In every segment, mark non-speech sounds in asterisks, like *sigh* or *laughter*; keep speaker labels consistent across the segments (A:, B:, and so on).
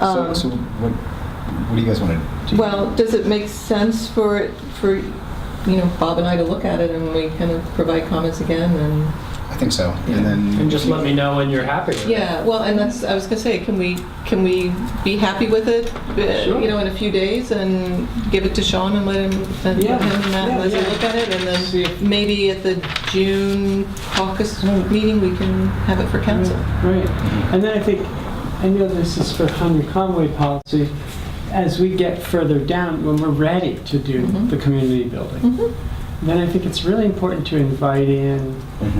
A: So,
B: Um,
A: so what, what do you guys want to do?
B: Well, does it make sense for, it- for, you know, Bob and I to look at it and we kind of provide comments again and,
A: I think so. And then
C: And just let me know when you're happy with it.
B: yeah, well, and that's, I was gonna say, can we, can we be happy with it, uh,
C: Sure.
B: you know, in a few days and give it to Sean and let him, and
C: Yeah,
B: let him and Matt
C: yeah,
B: let him
C: yeah.
B: look at it and
C: See if-
B: then maybe at the June caucus meeting, we can have it for council.
D: Right, and then I think, I know this is for Henry Conway policy, as we get further down, when we're ready to do
B: Mhm.
D: the community building,
B: Mhm.
D: then I think it's really important to invite in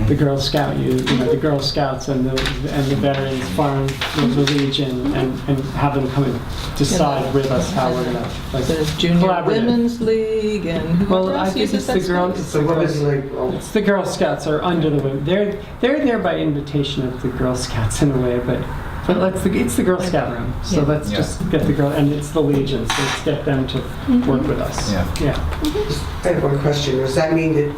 D: the
A: Mhm.
D: Girl Scout, you you know, the Girl Scouts and the, and the Veterans Farm, the Legion, and, and have them come and decide with us how we're gonna, like,
B: The Junior
D: Collaborative.
B: Women's League and whoever
D: well, I
B: else
D: think
B: uses
D: it's
B: that
D: the Girl,
B: space.
D: it's the Girl It's the Girl Scouts are under the wing. They're they're there by invitation of the Girl Scouts in a way, but but let's it's the Girl Scout room. So
B: Yeah.
D: let's
A: Yeah.
D: just get the girl and it's the Legion. So let's get them to
B: Mm-hmm.
D: work with us.
A: Yeah.
D: Yeah.
E: I have one question. Does that mean that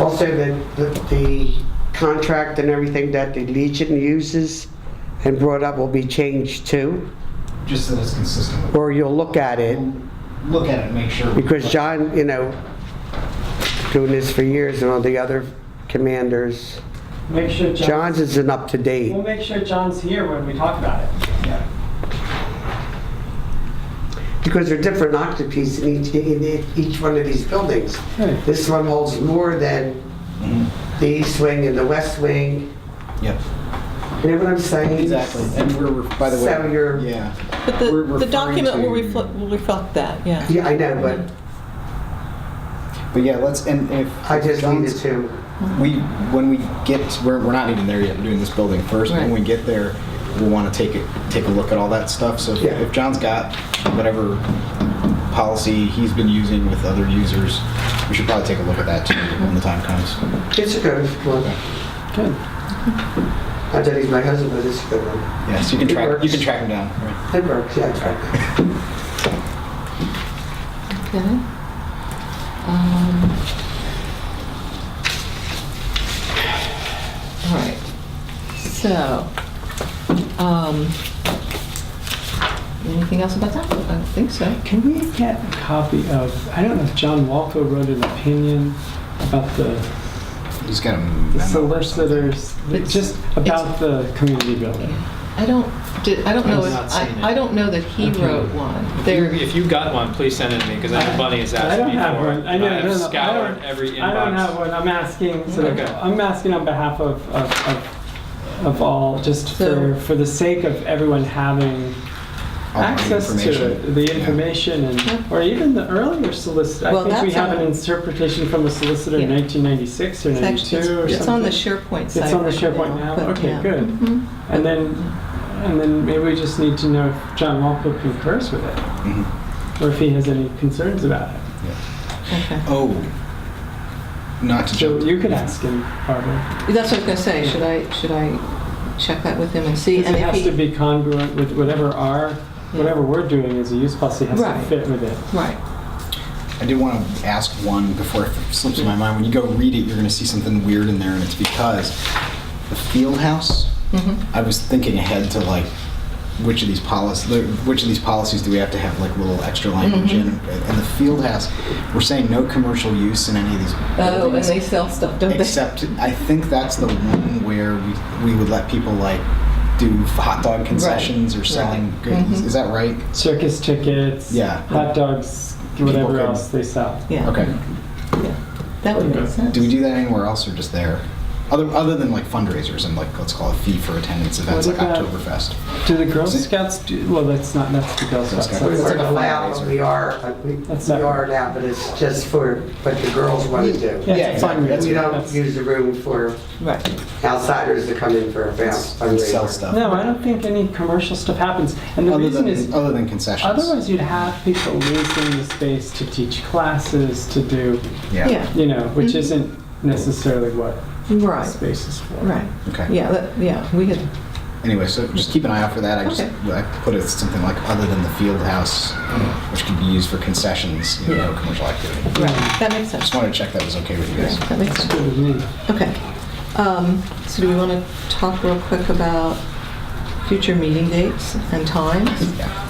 E: also that that the contract and everything that the Legion uses and brought up will be changed too?
A: Just so that it's consistent with.
E: Or you'll look at it?
A: Look at it, make sure.
E: Because John, you know, doing this for years and all the other commanders,
D: Make sure John.
E: John's isn't up to
D: We'll
E: date.
D: make sure John's here when we talk about it.
E: Because there are different octopus in each, in each one of these buildings. This one holds more than
A: Mhm.
E: the east wing and the west wing.
A: Yep.
E: You know what I'm saying?
A: Exactly. And we're, by the way.
E: So you're-
A: Yeah.
B: But the,
A: We're
B: the
A: referring
B: document will
A: to-
B: reflect, will reflect that, yeah.
E: Yeah, I know, but
A: But yeah, let's, and if.
E: I just needed
A: John's-
E: to.
A: We, when we get, we're, we're not even there yet, we're doing this building first. When
B: Right.
A: we get there, we'll want to take it, take a look at all that stuff. So if-
E: Yeah.
A: if John's got whatever policy he's been using with other users, we should probably take a look at that too when the time comes.
E: It's a good one.
D: Good.
E: I thought he's my husband, but it's a good one.
A: Yeah, so you can
E: It
A: track, you
E: works.
A: can track him down. Right.
E: It works, yeah, it's right.
B: Okay. Um, All right, so, um, anything else about that? I don't think so.
D: Can we get a copy of? I don't know if John Walco wrote an opinion about the,
A: He's got a
D: the
A: memo or something.
D: solicitors,
B: It's-
D: just about the community building.
B: I don't, did- I don't know,
C: I've
B: if-
C: not seen it.
B: I I don't know that he
D: Okay.
B: wrote one.
C: If you-
B: There,
C: If you got one, please send it to me, because I know Bunny has
D: I
C: asked
D: don't
C: me
D: have
C: for
D: one.
C: it.
D: I know,
C: I
D: no,
C: have
D: no, I
C: scoured
D: don't-
C: every
D: I don't have
C: inbox.
D: one. I'm asking. Sort of,
C: Okay.
D: I'm asking on behalf of of, of, of all, just for for the sake of everyone having
A: All the
D: access to
A: information.
D: it, the
A: Yeah.
D: information,
B: Yeah.
D: and or even the earlier solicitor.
B: Well,
D: I think we
B: that's
D: have
B: on-
D: an interpretation from a solicitor in
B: Yeah.
D: 1996 or
B: it's
D: 92
B: actually,
D: or
B: it's- it's on the
D: something.
B: SharePoint
D: It's
B: site.
D: on the
B: right
D: SharePoint now?
B: but
D: Okay,
B: yeah.
D: good.
B: Mhm.
D: and then and then maybe we just need to know if John Walpole concurs with it
A: Mhm.
D: or if he has any concerns about it.
B: Okay.
A: Oh, not to
D: So
A: jump.
D: you could ask him, Barbara.
B: That's what I was gonna say, should I, should I check that with him and see?
D: Because
B: And
D: it
B: if
D: has to
B: he,
D: be congruent with whatever our, whatever we're doing as a use policy has
B: Right.
D: to fit with it.
B: right,
A: I did want to ask one before it slips my mind. When you go read it, you're going to see something weird in there, and it's because the field house.
B: Mm-hmm.
A: I was thinking ahead to like which of these policies, which of these policies do we have to have like little extra language in? And the field house, we're saying no commercial use in any of these.
B: Oh, and
A: buildings,
B: they sell stuff,
D: *laughs*
B: don't they?
A: Except, I think that's the one where we, we would let people like do hot dog concessions or selling
D: Mm-hmm.
B: Right.
A: goodies.
B: Mhm.
A: Is that right?
D: Circus tickets,
A: Yeah.
D: hot dogs,
A: People
D: whatever
A: could-
D: else they sell.
B: Yeah.
A: Okay.
D: Mm-hmm.
B: That would make sense.
A: Do we do that anywhere else or just there? Other, other than like fundraisers and like let's call it fee for attendance events like
D: What about-
A: Oktoberfest.
D: Do the Girl
A: See-
D: Scouts do, well, that's not, that's the Girl Scouts.
A: Scouts.
E: We
A: It's
D: that's-
A: like
E: weren't
A: a
E: allowed,
A: fundraiser.
E: we are, we
D: That's
E: we
D: not-
E: are now, but it's just for what the girls want to do.
D: Yeah, it's a
A: exactly. That's-
E: We don't
D: that's-
E: use the room for
B: Right.
E: outsiders to come in for a fun-
A: and sell
E: fundraiser.
A: stuff.
D: No, I don't think any commercial stuff happens. And the
A: Other
D: reason
A: than,
D: is,
A: other than concessions.
D: otherwise you'd have people losing the space to teach classes, to do,
A: yeah.
B: Yeah,
D: you know, which
B: Mhm.
D: isn't necessarily what the
B: right,
D: space is for.
B: right.
A: Okay.
B: Yeah, that, yeah, we had,
A: Anyway, so just keep an eye out for that. I just
B: Okay.
A: I put it something like other than the field house, which could be used for concessions, you know,
B: Yeah.
A: commercial activity.
B: right, that
A: Just
B: makes sense.
A: wanted to check that was okay with you guys.
B: That makes sense.
D: Good with me.
B: Okay. Um, So do we want to talk real quick about future meeting dates and times.